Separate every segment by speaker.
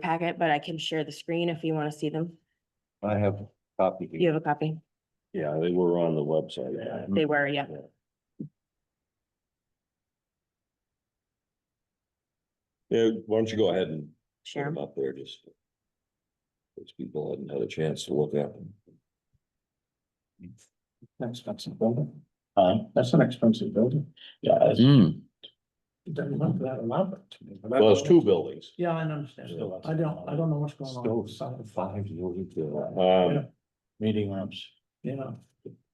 Speaker 1: packet, but I can share the screen if you want to see them.
Speaker 2: I have a copy.
Speaker 1: You have a copy?
Speaker 2: Yeah, they were on the website.
Speaker 1: They were, yeah.
Speaker 2: Yeah, why don't you go ahead and put
Speaker 1: Share
Speaker 2: them
Speaker 1: 'em.
Speaker 2: up there just. Those people hadn't had a chance to look at them.
Speaker 3: An expensive building. Um, That's an expensive building. Yeah. Doesn't look that elaborate to me.
Speaker 2: Well, it's two buildings.
Speaker 3: Yeah, I understand.
Speaker 2: Still-
Speaker 3: I don't, I don't know what's going on. outside of five.
Speaker 2: Um,
Speaker 4: uh, meeting rooms,
Speaker 3: You know,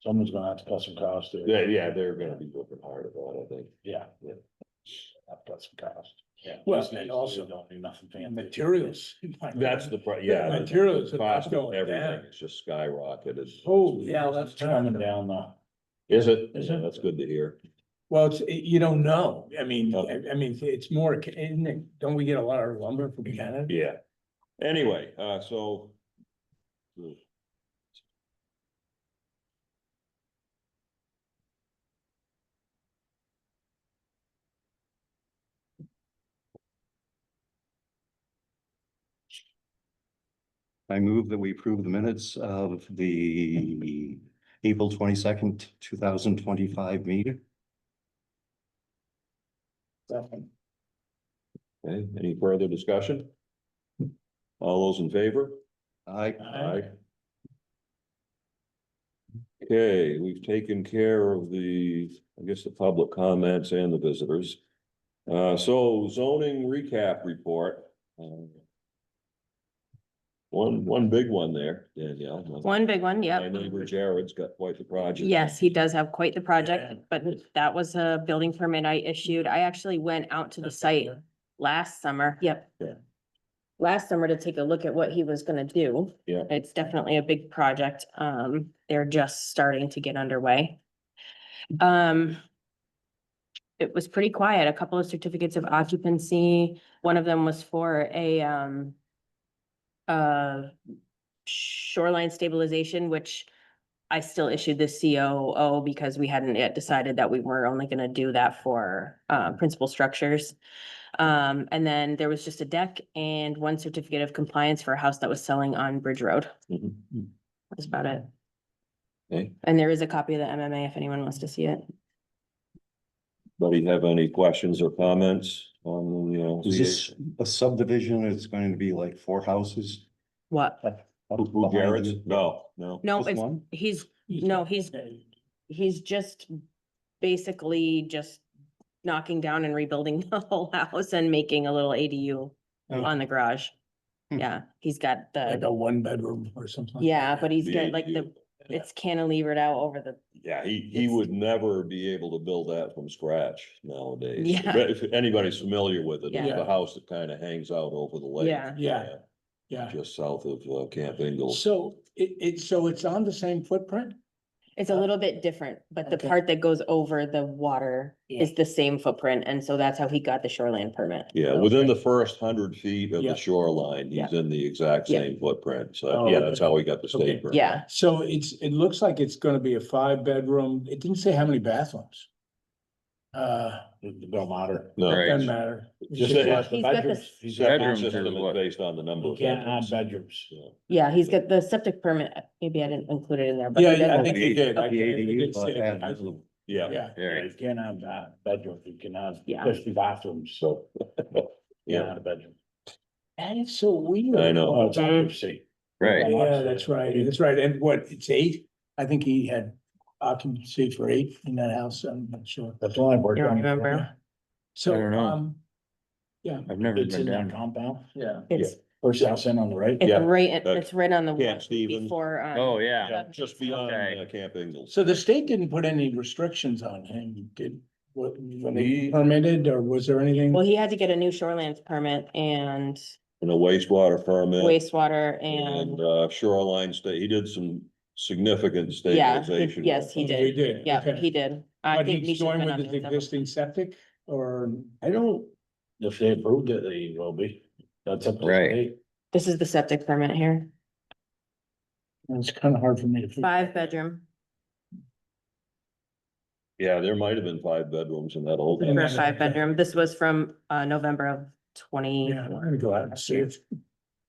Speaker 4: someone's gonna have to cut some costs there.
Speaker 2: yeah, yeah, they're gonna be looking hard at that, I think.
Speaker 4: Yeah. yeah. Have to cut some costs. Yeah.
Speaker 3: Well,
Speaker 4: These days,
Speaker 3: and also-
Speaker 4: they Don't do nothing
Speaker 3: and
Speaker 4: fancy.
Speaker 3: materials.
Speaker 2: That's the, pri- yeah. the
Speaker 3: Materials are
Speaker 2: Cost of
Speaker 3: going down.
Speaker 2: everything, it's just skyrocketed.
Speaker 3: Oh, yeah, that's
Speaker 4: Turning down the,
Speaker 2: Is it?
Speaker 3: Is
Speaker 2: Yeah,
Speaker 3: it?
Speaker 2: That's good to hear.
Speaker 3: Well, it's, you don't know. I mean,
Speaker 2: Okay.
Speaker 3: I, I mean, it's more, isn't it, don't we get a lot of lumber from Canada?
Speaker 2: Yeah. Anyway, uh, so.
Speaker 5: I move that we approve the minutes of the April twenty-second, two thousand twenty-five meeting.
Speaker 2: Okay, any further discussion? All those in favor?
Speaker 5: I,
Speaker 2: Aye. Okay, we've taken care of the, I guess, the public comments and the visitors. Uh, so zoning recap report. um, One, one big one there, Danielle.
Speaker 1: One big one,
Speaker 2: My
Speaker 1: yep.
Speaker 2: neighbor Jared's got quite the project.
Speaker 1: Yes, he does have quite the project, but that was a building permit I issued. I actually went out to the site last summer, yep.
Speaker 2: Yeah.
Speaker 1: Last summer to take a look at what he was gonna do.
Speaker 2: Yeah.
Speaker 1: It's definitely a big project. Um, they're just starting to get underway. Um. It was pretty quiet, a couple of certificates of occupancy. One of them was for a, um. Uh, shoreline stabilization, which I still issued the COO because we hadn't yet decided that we were only gonna do that for, uh, principal structures. Um, and then there was just a deck and one certificate of compliance for a house that was selling on Bridge Road.
Speaker 2: Mhm.
Speaker 1: That's about it.
Speaker 2: Okay,
Speaker 1: And there is a copy of the MMA if anyone wants to see it.
Speaker 2: anybody have any questions or comments on, uh, you know?
Speaker 5: is this a subdivision? It's going to be like four houses?
Speaker 1: What?
Speaker 2: Who, Jared's? No, no.
Speaker 1: No,
Speaker 5: Just
Speaker 1: it's,
Speaker 5: one?
Speaker 1: he's, no, he's, he's just basically just knocking down and rebuilding the whole house and making a little ADU
Speaker 5: Oh.
Speaker 1: on the garage.
Speaker 5: Hmm.
Speaker 1: Yeah, he's got
Speaker 3: Like
Speaker 1: the,
Speaker 3: a one bedroom or something.
Speaker 1: yeah, but he's
Speaker 2: The
Speaker 1: got like the,
Speaker 2: ADU.
Speaker 1: it's cantilevered out over the
Speaker 2: Yeah, he, he
Speaker 1: It's-
Speaker 2: would never be able to build that from scratch nowadays.
Speaker 1: Yeah.
Speaker 2: But If anybody's familiar with it, it's
Speaker 3: Yeah.
Speaker 2: the house that kind of hangs out over the lake.
Speaker 1: Yeah.
Speaker 3: Yeah. Yeah.
Speaker 2: Just south of uh, Camp Ingalls.
Speaker 3: So it, it, so it's on the same footprint?
Speaker 1: It's a little bit different, but the
Speaker 3: Uh, Okay.
Speaker 1: part that goes over the water is the same footprint, and so that's how he got the shoreline permit.
Speaker 2: Yeah, within the first hundred feet of
Speaker 3: Yeah.
Speaker 2: the shoreline, he's in the exact
Speaker 1: Yeah.
Speaker 2: same footprint. So,
Speaker 3: Oh,
Speaker 2: yeah,
Speaker 3: okay.
Speaker 2: that's how he got the
Speaker 3: Okay.
Speaker 2: state. permit.
Speaker 1: Yeah,
Speaker 3: So it's, it looks like it's gonna be a five bedroom, it didn't say how many bathrooms. Uh,
Speaker 4: the Bill Mater.
Speaker 2: No.
Speaker 3: doesn't matter.
Speaker 2: Just that-
Speaker 1: He's got this-
Speaker 4: He's got
Speaker 2: Septic
Speaker 4: bedrooms.
Speaker 2: system
Speaker 4: is
Speaker 2: is
Speaker 4: what-
Speaker 2: based on the number.
Speaker 4: You
Speaker 2: of
Speaker 4: can't add
Speaker 2: bedrooms.
Speaker 4: bedrooms.
Speaker 2: Yeah.
Speaker 1: yeah, he's got the septic permit, uh, maybe I didn't include it in there, but.
Speaker 3: Yeah,
Speaker 1: he does
Speaker 3: yeah, I
Speaker 1: have
Speaker 3: think
Speaker 1: it.
Speaker 3: he did. I-
Speaker 5: The
Speaker 3: it
Speaker 5: ADU,
Speaker 3: did
Speaker 5: but
Speaker 3: say
Speaker 5: add
Speaker 3: it. I-
Speaker 5: little-
Speaker 2: Yeah,
Speaker 3: Yeah,
Speaker 4: You can't have that bedroom, you can have
Speaker 1: Yeah.
Speaker 4: fifty bathrooms, so.
Speaker 2: Yeah.
Speaker 4: Not a bedroom.
Speaker 3: that is so weird.
Speaker 2: I know.
Speaker 4: Well, it's occupancy.
Speaker 6: Right,
Speaker 3: Yeah, that's right, that's right, and what, it's eight? I think he had occupancy for eight in that house, I'm not sure.
Speaker 4: That's the only word.
Speaker 1: You don't
Speaker 4: I'm-
Speaker 1: remember?
Speaker 3: So,
Speaker 6: I don't know.
Speaker 3: um,
Speaker 6: I've never
Speaker 4: It's
Speaker 6: been
Speaker 4: in that
Speaker 6: down.
Speaker 4: compound,
Speaker 3: yeah.
Speaker 1: It's,
Speaker 4: first house in on the right.
Speaker 2: Yeah.
Speaker 1: it's right,
Speaker 2: Uh,
Speaker 1: it's right on the
Speaker 2: Camp
Speaker 1: one
Speaker 2: Stevens.
Speaker 1: before, um.
Speaker 6: Oh, yeah.
Speaker 2: Yeah, Just beyond
Speaker 6: Okay.
Speaker 2: uh, Camp Ingalls.
Speaker 3: So the state didn't put any restrictions on him, did, what, when they
Speaker 2: He-
Speaker 3: permitted, or was there anything?
Speaker 1: Well, he had to get a new shoreline permit and
Speaker 2: And a wastewater permit.
Speaker 1: wastewater
Speaker 2: And
Speaker 1: and,
Speaker 2: uh, shoreline state, he did some significant
Speaker 1: yeah, he-
Speaker 2: stabilization.
Speaker 1: yes, he
Speaker 3: They
Speaker 1: did,
Speaker 3: did.
Speaker 1: yeah,
Speaker 3: okay.
Speaker 1: he did. I
Speaker 3: But
Speaker 1: think
Speaker 3: he's
Speaker 1: Misha's been
Speaker 3: going
Speaker 1: on
Speaker 3: with his
Speaker 1: there several-
Speaker 3: existing septic, or,
Speaker 4: I don't, if they approved it, they will be. That's up to the
Speaker 6: Right.
Speaker 4: state.
Speaker 1: This is the septic permit here,
Speaker 3: it's kind of hard for me to. figure-
Speaker 1: five bedroom.
Speaker 2: Yeah, there might have been five bedrooms in that old.
Speaker 3: And
Speaker 1: For a
Speaker 3: then-
Speaker 1: five bedroom, this was from uh November of
Speaker 3: Yeah, I'm
Speaker 1: twenty-one.
Speaker 3: gonna go out and see it.